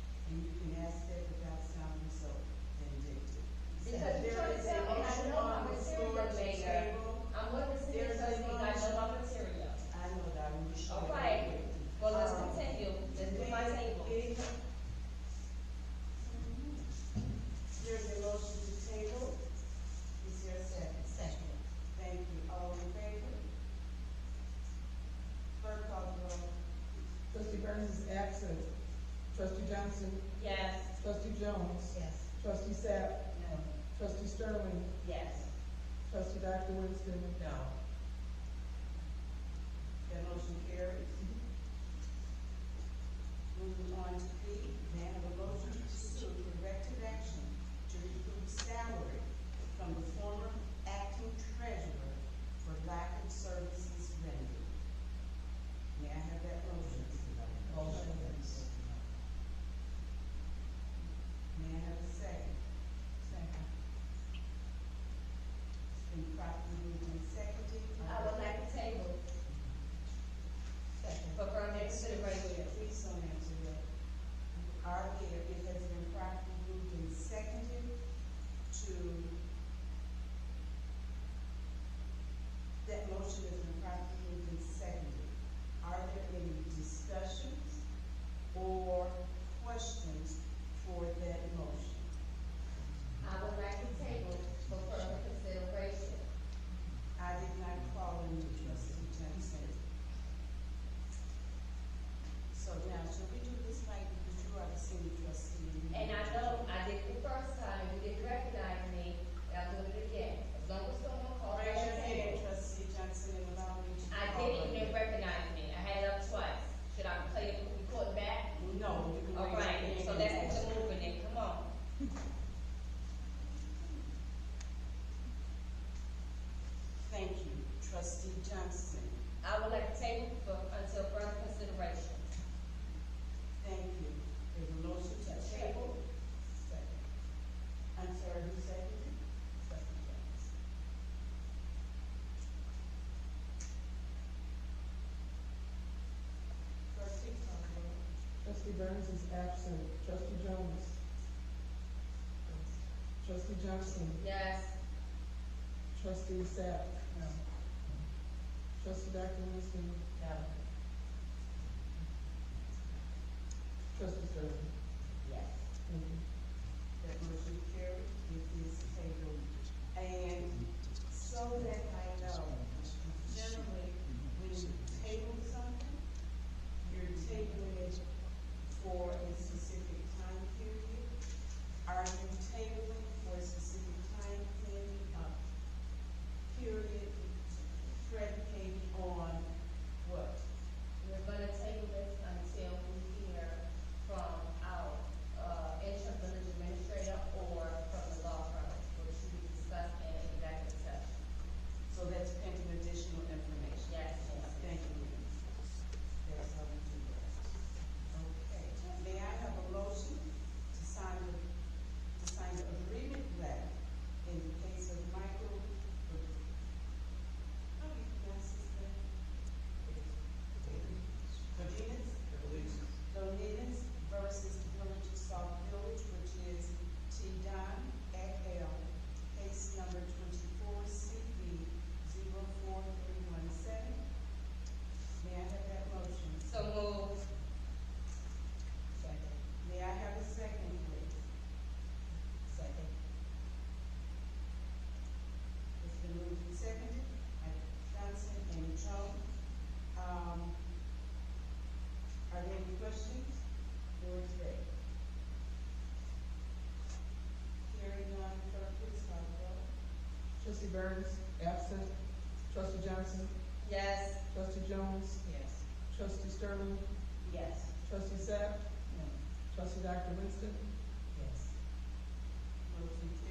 "Oh, Um, Trustee Burns is absent. Trustee Johnson, Yes. trustee Jones, Yes. trustee Sapp, No. trustee Sterling, Yes. trustee Dr. Winston, No. That motion carries. Moving on to P, may I have a motion to pursue corrective action to recoup salary from the former acting treasurer for lack of services rendered? May I have that motion? Motion. May I have a second? Second. It's been properly moved and seconded. I would like to table Second. for further consideration. Please don't answer that. Are there, it has been properly moved and seconded to, that motion has been properly moved and seconded. Are there any discussions or questions for that motion? I would like to table for further consideration. I did not call in with trustee Johnson. So now, should we do this like, because you are the senior trustee? And I know I did it the first time, you didn't recognize me, and I'll do it again. As long as someone calls. Raise your I'll hand, table. trustee Johnson, and allow me to. I call didn't on even you. recognize me. I had it up twice. Should I play it, record back? No, you can All raise your hand. right, so and let's ask. get to moving then, come on. Thank you, trustee Johnson, I would like to table for, until further consideration. thank you. There's a motion to table. Second. I'm sorry, who seconded? it? Trustee Johnson. Trustee Caldwell. trustee Burns is absent. Trustee Jones, trustee Johnson, Yes. trustee Sapp, trustee Dr. Winston, No. trustee Sterling. Yes. Thank you. That motion carried, it is tabled. And so that I know, generally, when you table something, you're tabling it for a specific time period. Are you tabling for a specific time period, uh, period predicated on what? We're gonna table this until we hear from our, uh, interim village administrator or from the law firm, which we discussed in executive session. So that's pending additional information. Yes, ma'am. Thank you. That's how we do that. Okay, may I have a motion to sign the, to sign the agreement letter in the case of Michael, how do you pronounce his name? Godinez? Godinez versus the Village of South Village, which is T. Don et al., case number twenty-four CV zero four three one seven. May I have that motion? So move. Second. May I have a second, please? Second. It's been moved and seconded by Johnson and Jones. Um, are there any questions? Or is there? Hearing none, clerk, please call the roll. Trustee Burns, absent. Trustee Johnson, Yes. trustee Jones, Yes. trustee Sterling, Yes. trustee Sapp, No. trustee Dr. Winston, Yes. Motion